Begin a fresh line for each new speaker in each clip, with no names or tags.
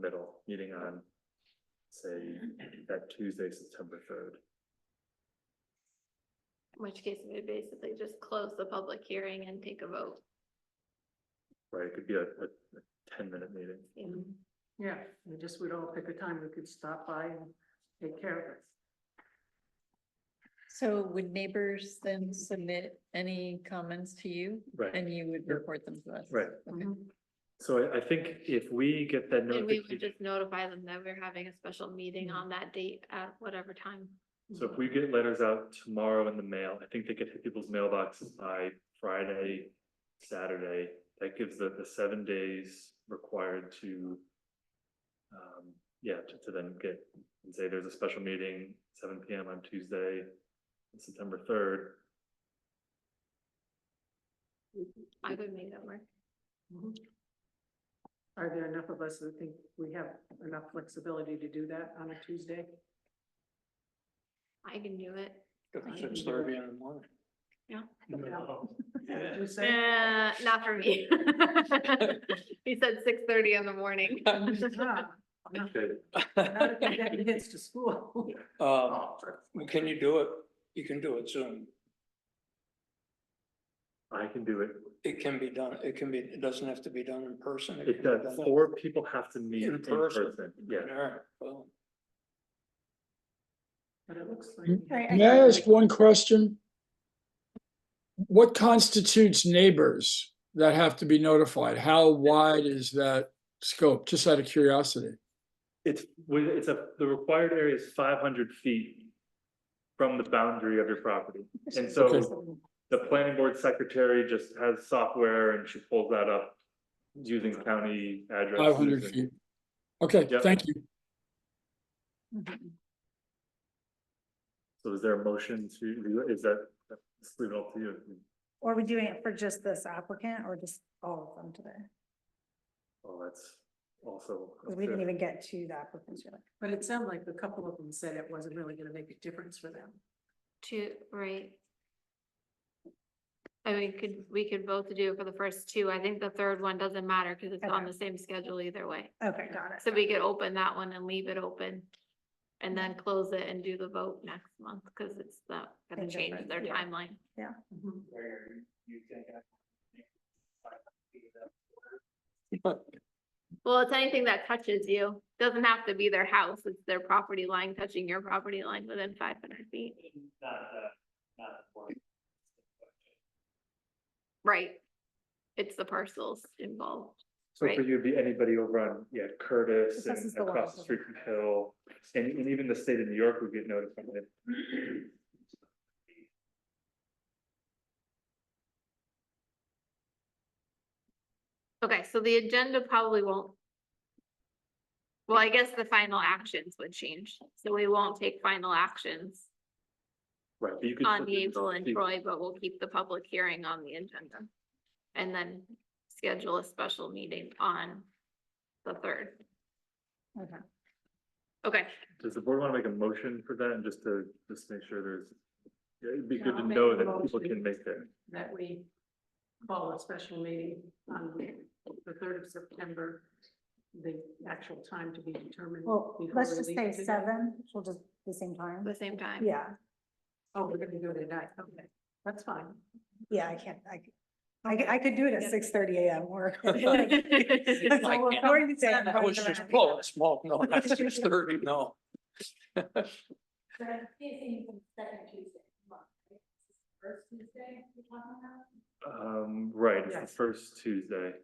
middle, meeting on, say, that Tuesday, September third.
In which case we basically just close the public hearing and take a vote.
Right, it could be a, a ten-minute meeting.
Yeah, we just, we'd all pick a time we could stop by and take care of it.
So would neighbors then submit any comments to you
Right.
and you would
Yep.
report them to us?
Right,
Okay.
Mm-hmm.
so I, I think if we get that
And we would
notification,
just notify them that we're having a special meeting
Mhm.
on that date at whatever time.
so if we get letters out tomorrow in the mail, I think they could hit people's mailboxes by Friday, Saturday. That gives the, the seven days required to, um, yeah, to, to then get, and say there's a special meeting, seven P M on Tuesday, September third.
I could make that work.
Mhm. Are there enough of us that think we have enough flexibility to do that on a Tuesday?
I can do it.
Six thirty in
Yeah.
the morning. Yeah. Tuesday?
Uh, not for me. He said six thirty in the morning.
Ah, Not not if you get kids to school.
Um, can you do it? You can do it soon.
I can do it.
It can be done, it can be, it doesn't have to be done in person.
It
can be
does,
done-
four people have to meet
In
in
person.
person, yeah.
All right, well,
But it looks like.
Can I ask one question? What constitutes neighbors that have to be notified? How wide is that scope? Just out of curiosity.
It's, well, it's a, the required area is five hundred feet from the boundary of your property. And so the planning board secretary just has software and she pulls that up using county addresses.
Five hundred
and-
feet. Okay,
Yep.
thank you.
So is there a motion to, is that, let's leave it up to you.
Or are we doing it for just this applicant or just all of them today?
Oh, that's also. up
'Cause we didn't
to-
even get to the applicants yet.
But it sounded like a couple of them said it wasn't really gonna make a difference for them.
Two, right. I mean, could, we could both do it for the first two. I think the third one doesn't matter because it's on
Okay.
the same schedule either way.
Okay, got it.
So we could open that one and leave it open. And then close it and do the vote next month, because it's not gonna
It's
change
different,
their
yeah.
timeline.
Mm-hmm.
Mhm.
Well, it's anything that touches you, doesn't have to be their house, it's their property line touching your property line within five hundred feet. Right. It's the parcels involved.
So for
Right.
you, it'd be anybody over on, yeah, Curtis
This is
and
the one
across the
over
street from Hill. And, and even the state of New York would get notified.
Okay, so the agenda probably won't. Well, I guess the final actions would change, so we won't take final actions
Right, but you could.
on
still do
Hazel and
the-
Troy, but we'll keep the public hearing on the agenda. And then schedule a special meeting on the third.
Okay.
Okay,
Does the board want to make a motion for that and just to, just make sure there's, yeah, it'd be
Yeah,
good to
I'll make
know
a
that people
motion.
can make that.
That we call a special meeting on the third of September, the actual time to be determined.
Well,
before
let's
we
just
leave
say
today.
seven, we'll just the same time.
at the same time.
Yeah,
Oh, we're gonna do it at night, okay, that's fine.
yeah, I can't, I, c- I, c- I could do it at six thirty AM or.
I can't. that was just close, well, no, that's just thirty, no.
Um, right, it's the
Yes.
first Tuesday.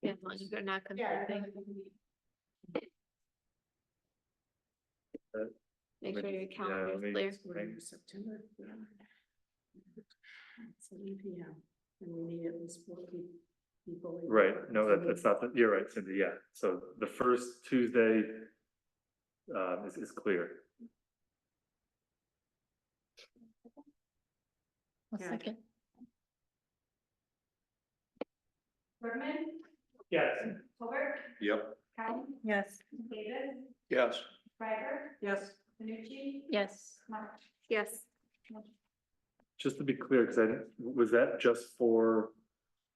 Yeah, as long as they're not conflicting.
Uh,
Make
let
sure
me
your
just- yeah,
calendar
let me
is clear.
just
We're
think.
in September. Seven P M, and we need at least four pe- people. in
Right,
there.
no,
So
that, that's not, the- you're right, Cindy, yeah, so the first Tuesday um, is, is clear.
One
Yeah.
second.
Bergman,
Yes.
Hobart,
Yep.
Patton,
Yes.
Davis,
Yes,
Ryder,
Yes,
Fanucci,
Yes.
March. Yes,
Just to be clear, because I, didn't- was that just for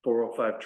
four oh five